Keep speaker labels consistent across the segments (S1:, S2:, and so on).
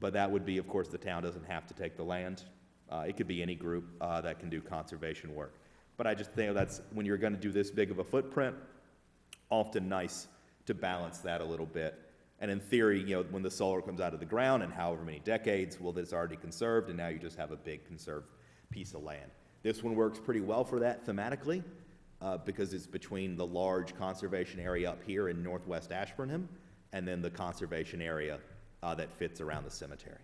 S1: But that would be, of course, the town doesn't have to take the land. Uh, it could be any group, uh, that can do conservation work. But I just think that's, when you're gonna do this big of a footprint, often nice to balance that a little bit. And in theory, you know, when the solar comes out of the ground in however many decades, well, it's already conserved, and now you just have a big conserved piece of land. This one works pretty well for that thematically, uh, because it's between the large conservation area up here in northwest Ashburnham and then the conservation area uh, that fits around the cemetery.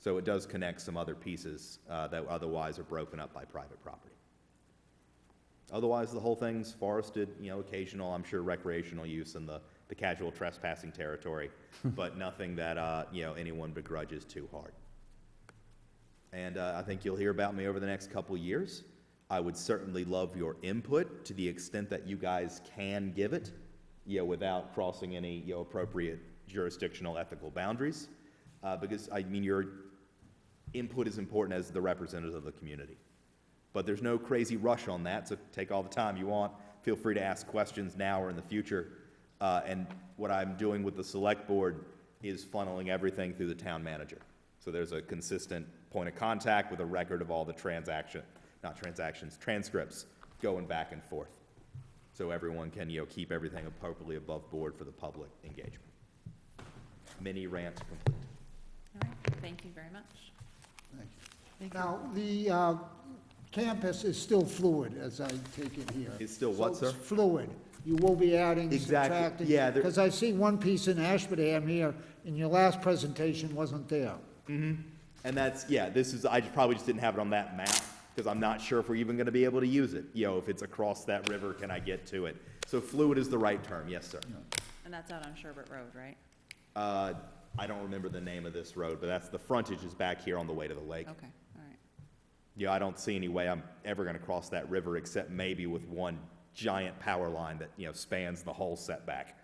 S1: So it does connect some other pieces uh, that otherwise are broken up by private property. Otherwise, the whole thing's forested, you know, occasional, I'm sure recreational use in the, the casual trespassing territory, but nothing that, uh, you know, anyone begrudges too hard. And uh, I think you'll hear about me over the next couple years. I would certainly love your input to the extent that you guys can give it, you know, without crossing any, you know, appropriate jurisdictional ethical boundaries. Uh, because, I mean, your input is important as the representatives of the community. But there's no crazy rush on that, so take all the time you want. Feel free to ask questions now or in the future. Uh, and what I'm doing with the select board is funneling everything through the town manager. So there's a consistent point of contact with a record of all the transaction, not transactions, transcripts going back and forth. So everyone can, you know, keep everything appropriately above board for the public engagement. Mini rant complete.
S2: All right, thank you very much.
S3: Thank you. Now, the uh, campus is still fluid, as I take it here.
S1: It's still what,
S3: So it's
S1: sir?
S3: Fluid. You will be adding,
S1: Exactly.
S3: subtracting.
S1: Yeah, there-
S3: Because I see one piece in Ashburnham here, and your last presentation wasn't there.
S1: And that's, yeah, this is, I just probably just didn't have it on that map, because I'm not sure if we're even gonna be able to use it. You know, if it's across that river, can I get to it? So fluid is the right term, yes, sir.
S2: And that's out on Sherbert Road, right?
S1: Uh, I don't remember the name of this road, but that's, the frontage is back here on the way to the lake.
S2: Okay, all right.
S1: Yeah, I don't see any way I'm ever gonna cross that river, except maybe with one giant power line that, you know, spans the whole setback.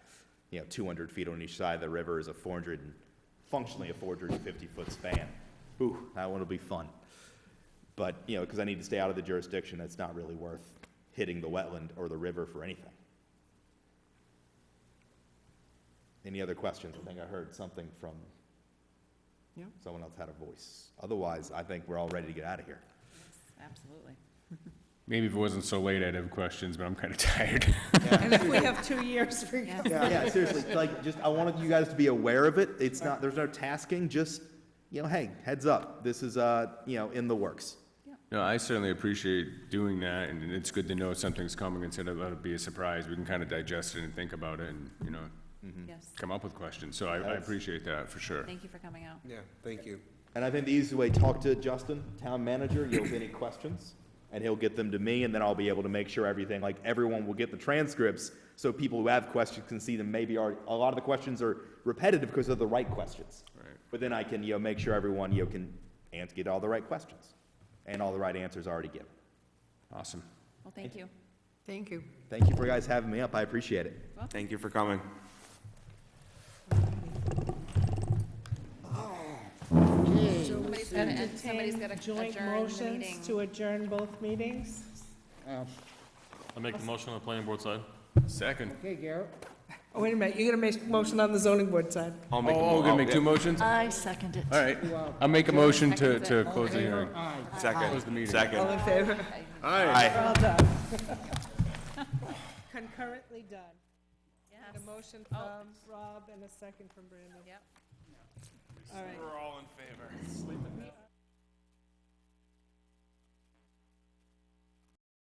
S1: You know, two hundred feet on each side of the river is a four hundred and, functionally a four hundred and fifty foot span. Ooh, that one'll be fun. But, you know, because I need to stay out of the jurisdiction, that's not really worth hitting the wetland or the river for anything. Any other questions? I think I heard something from someone else had a voice. Otherwise, I think we're all ready to get out of here.
S2: Absolutely.
S4: Maybe if it wasn't so late, I'd have questions, but I'm kind of tired.
S2: And if we have two years, we're gonna.
S1: Yeah, seriously, like, just, I wanted you guys to be aware of it, it's not, there's no tasking, just, you know, hey, heads up, this is, uh, you know, in the works.
S4: No, I certainly appreciate doing that, and it's good to know something's coming instead of let it be a surprise. We can kind of digest it and think about it and, you know,
S2: Yes,
S4: come up with questions. So I, I appreciate that for sure.
S2: thank you for coming out.
S5: Yeah, thank you.
S1: And I think the easiest way, talk to Justin, town manager, you'll have any questions, and he'll get them to me, and then I'll be able to make sure everything, like, everyone will get the transcripts, so people who have questions can see them, maybe are, a lot of the questions are repetitive because they're the right questions.
S4: Right.
S1: But then I can, you know, make sure everyone, you know, can ans- get all the right questions, and all the right answers already given.
S4: Awesome.
S2: Well, thank you.
S6: Thank you.
S1: Thank you for guys having me up, I appreciate it.
S5: Thank you for coming.
S2: Somebody's gotta, and somebody's gotta
S7: Joint
S2: adjourn the meeting.
S7: motions to adjourn both meetings?
S3: Uh,
S8: I make the motion on the planning board side.
S4: Second.
S3: Okay, Garrett?
S7: Oh, wait a minute, you're gonna make a motion on the zoning board side?
S5: I'll
S4: Oh,
S5: make a mo-
S4: oh, gonna
S5: I'll-
S4: make two motions? All
S6: I second it.
S4: right. I'll make a motion to, to close the hearing.
S3: Aye.
S5: yeah. Second,
S4: Close the meeting.
S7: All
S5: second.
S7: in favor?
S5: Aye.
S7: All done. Concurrently done.
S2: Yes.
S7: A
S2: Oh.
S7: motion from Rob and a second from Brandon.
S2: Yep.
S7: All right.
S5: We're all in favor.